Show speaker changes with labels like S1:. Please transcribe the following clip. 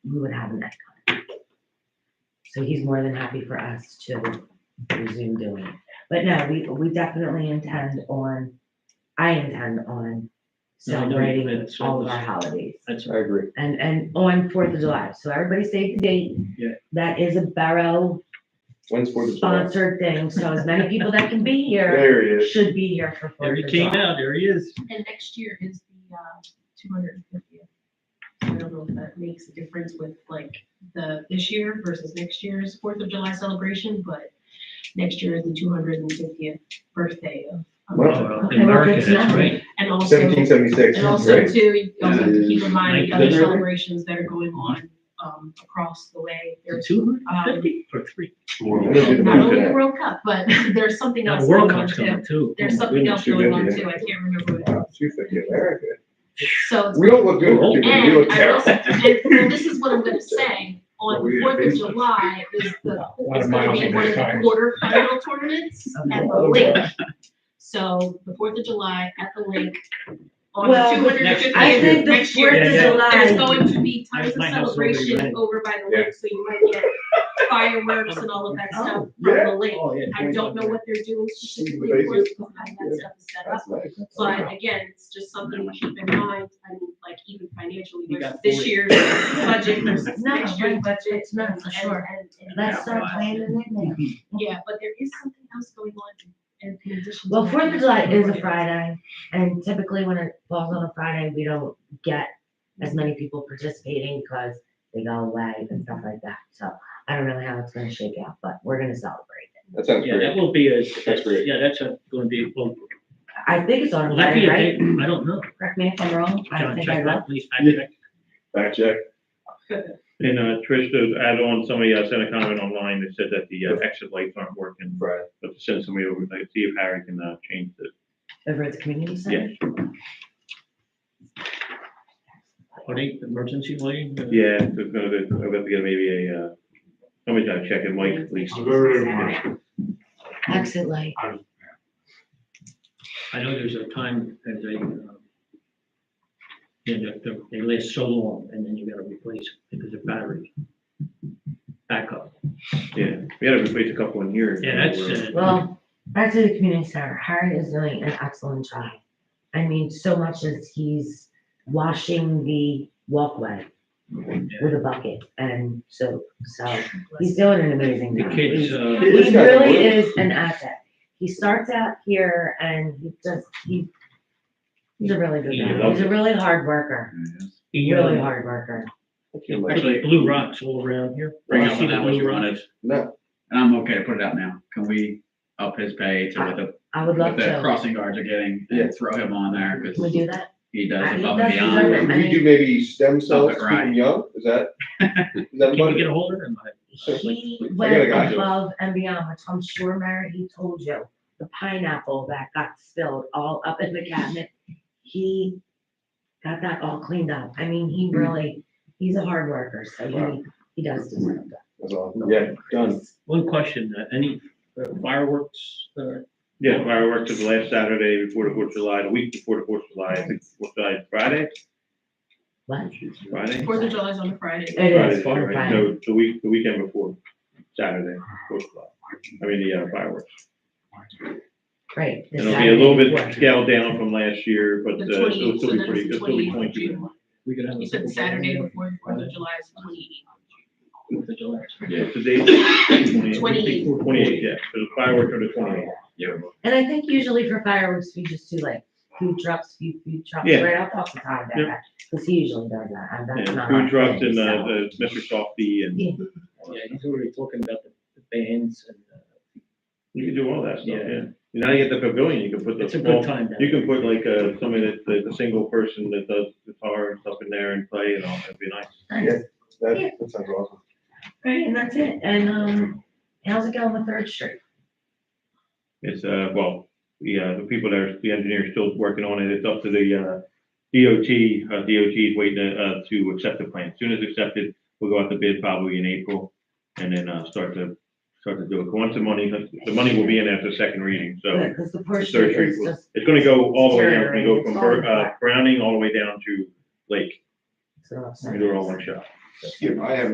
S1: we would have him at that time. So he's more than happy for us to resume doing it. But no, we, we definitely intend on, I intend on
S2: No, I know you
S1: celebrating
S2: did, so
S1: all of
S2: this-
S1: our holidays.
S2: That's,
S3: I agree.
S1: And, and on Fourth of July, so everybody save the date.
S2: Yeah.
S1: That is a Barrow
S3: When's
S4: Uh,
S3: Fourth of July?
S1: sponsored thing, so as many people that can be here
S3: There he is.
S1: should be here for
S2: there
S1: Fourth
S2: he
S1: of
S2: came
S1: July.
S2: out, there he is.
S4: And next year is the, uh, two hundred and fiftieth. I don't know if that makes a difference with like the, this year versus next year's Fourth of July celebration, but next year is the two hundred and fiftieth birthday of. of
S3: Wow.
S4: America.
S1: Okay, well,
S2: America,
S1: it's
S2: that's
S1: not-
S2: right.
S4: And also,
S3: Seventeen seventy-six,
S4: and also
S3: great.
S4: too, you also have to keep in
S2: Yeah.
S4: mind the
S2: Like
S4: other
S2: the-
S4: celebrations that are going on, um, across the way. There's
S2: Two
S4: um,
S2: fifty or three?
S3: I'm gonna do the
S4: not
S3: math
S4: only the
S3: today.
S4: World Cup, but there's something
S2: Now,
S4: else
S2: the World
S4: going on
S2: Cup's
S4: too.
S2: coming too.
S4: There's something else going on
S3: 250,
S4: too. I can't remember what it
S3: Wow, Two fifty, America.
S4: is. So it's
S3: We don't look good, for two fifty. we look
S4: Oh, And I will,
S3: terrible.
S4: say- and well, this is what I'm gonna say, on
S3: Well, we
S4: the
S3: had
S4: Fourth of
S3: baseball.
S4: July is the,
S3: lot
S4: is
S3: of
S4: gonna
S3: miles
S4: be
S3: in
S4: one of the
S3: that time. Oh,
S4: quarterfinal tournaments at the lake. So the Fourth of July at the lake on the
S1: Well,
S4: two hundred and fiftieth.
S1: I think the
S4: next year,
S1: Fourth
S2: of
S4: There's
S1: July-
S4: going to be tons of
S2: My house over there, right?
S4: celebration over by the lake, so you might get fireworks and all of that stuff from
S3: yeah.
S4: the lake.
S2: Oh, yeah.
S4: I don't know what they're doing specifically,
S3: Basically.
S4: of course, because I that stuff is set up.
S3: That's nice.
S4: But again, it's just something to keep in mind, I mean, like even financially,
S2: You
S4: versus
S2: got
S4: this
S2: forty.
S4: year's budget versus
S1: No,
S4: next year's
S1: right,
S4: budget.
S1: it's not, for
S4: and-
S1: sure.
S4: and- and-
S1: Let's start planning it now.
S4: Yeah, but there is something else going on in in addition. to
S1: Well,
S4: that.
S1: Fourth of July is a Friday, and typically when it falls on a Friday, we don't get as many people participating because they go away and stuff like that. So I don't know how it's gonna shake out, but we're gonna celebrate.
S3: That sounds
S2: Yeah, that
S3: great.
S2: will be a,
S3: That's great.
S2: yeah, that's a- gonna be, well,
S1: I think it's on a
S2: will that be
S1: Friday,
S2: a
S1: right?
S2: date? I don't know.
S1: Correct me if I'm wrong. I don't
S2: John,
S1: think I
S2: check
S1: read.
S2: that, please, fact
S5: Yeah.
S2: check.
S3: Back check.
S5: And uh, Trish, to add on, somebody uh, sent a comment online that said that the uh, exit lights aren't working,
S3: Right.
S5: but to send somebody over, like, see if Harry can uh, change the
S1: Over at the community center?
S2: Are they emergency lighting?
S5: Yeah, there's gonna be, I'm gonna have to get maybe a, uh, somebody gotta check it, Mike, please.
S1: Exit light.
S2: I know there's a time that they, um, you know, they- they last so long and then you gotta replace it because of battery. Backup.
S5: Yeah, we had to replace a couple in here.
S2: Yeah, that's, uh,
S1: Well, back to the community center, Harry is doing an excellent job. I mean, so much as he's washing the walkway with a bucket and soap, so he's doing an amazing
S2: the
S1: job.
S2: kids,
S1: He's-
S2: uh,
S3: This
S1: He
S3: guy's a
S1: really
S3: winner.
S1: is an asset. He starts out here and he just, he, he's a really good
S2: He
S1: guy.
S5: loves
S1: He's a
S5: it.
S1: really hard worker,
S2: he,
S1: really
S2: uh,
S1: hard worker.
S3: Thank you, Mike.
S2: actually, blue rocks all around here.
S6: Bring
S2: You
S6: up
S2: see
S6: what
S2: the
S6: that was
S2: blue
S6: you
S2: rocks?
S6: wanted,
S3: No,
S6: and I'm okay to put it out now. Can we up his pay to what the,
S1: I would love
S6: what the
S1: to.
S6: crossing guards are getting
S3: Yeah.
S6: and throw him on there
S1: Can we
S6: because
S1: do that?
S6: he
S1: I
S6: does
S1: think
S6: above
S1: that's
S6: and
S1: deserving.
S6: beyond.
S3: we do maybe stem cells,
S6: it
S3: keep
S6: right.
S3: them young, is that? Is that
S2: Can you
S3: money?
S2: get a hold of them?
S1: He
S3: I got a
S1: went
S3: guy, Joe.
S1: above and beyond, which I'm sure Mary, he told you, the pineapple that got spilled all up in the cabinet. He got that all cleaned up. I mean,
S5: Mm.
S1: he really, he's a hard worker, so he,
S3: Wow.
S1: he does deserve that.
S3: That's all. Yeah, done.
S2: One question, uh, any uh, fireworks, uh,
S5: Yeah, fireworks is the last Saturday before the Fourth of July, the week before the Fourth of July, I think, Fourth of July, is Friday,
S1: What?
S5: Friday?
S4: Fourth of July is on a Friday.
S1: It
S5: Friday,
S1: is.
S5: right? No, the week, the weekend before, Saturday, Fourth of July, I mean, the uh, fireworks.
S1: Right. this
S5: And It'll be a little
S1: Saturday.
S5: bit scaled down from last year, but uh,
S4: The
S5: it'll
S4: twenty, so
S5: still be
S4: then
S5: pretty,
S4: it's the
S5: it'll still be
S4: twenty-eighth of
S5: pointy.
S4: June.
S2: we could have. a
S4: You said
S2: football
S4: Saturday
S2: game
S4: before Fourth of July is twenty-eighth.
S2: with the July.
S6: Yeah,
S5: Today,
S4: Twenty.
S5: Twenty-eight, yeah, so the fireworks are the twenty-eight.
S6: yeah.
S1: And I think usually for fireworks, we just do like food trucks, few food trucks,
S5: Yeah.
S1: right? I'll talk to Todd about
S5: Yep.
S1: that, because he usually does that, and that's
S5: Yeah,
S1: not.
S5: food
S1: our
S5: trucks
S1: thing,
S5: and,
S1: so.
S5: uh, the Mr. Softy and,
S1: Yeah.
S2: Yeah, he's already talking about the the bands and, uh,
S5: you can do all that stuff,
S2: Yeah.
S5: yeah. Now you get the pavilion, you can put the
S2: it's a good
S5: small,
S2: time. down
S5: you can put like, uh, somebody that, that's a single person that does guitar and stuff in there and play and all, that'd be nice.
S1: Nice.
S3: Yeah, that, that sounds awesome.
S1: Right, and that's it, and, um, how's it going with Third Street?
S5: It's, uh, well, the, uh, the people that are, the engineer's still working on it, it's up to the, uh, DOT, uh, DOT is waiting, to, uh, to accept the plan. As Soon as accepted, we'll go out to bid probably in April and then, uh, start to, start to do it. Once the money, the money will be in after second reading, so.
S1: Because the Third
S5: Third
S1: Street
S5: Street
S1: is
S5: was-
S1: just,
S5: It's gonna go uh, all the way down, it's
S1: Sure,
S5: gonna go
S1: it's
S5: from
S1: all
S5: Bur-
S1: flat.
S5: uh, Browning all the way down to Lake.
S7: So I'll send
S1: We do it all
S7: this.
S1: one shot.
S3: Yeah, I have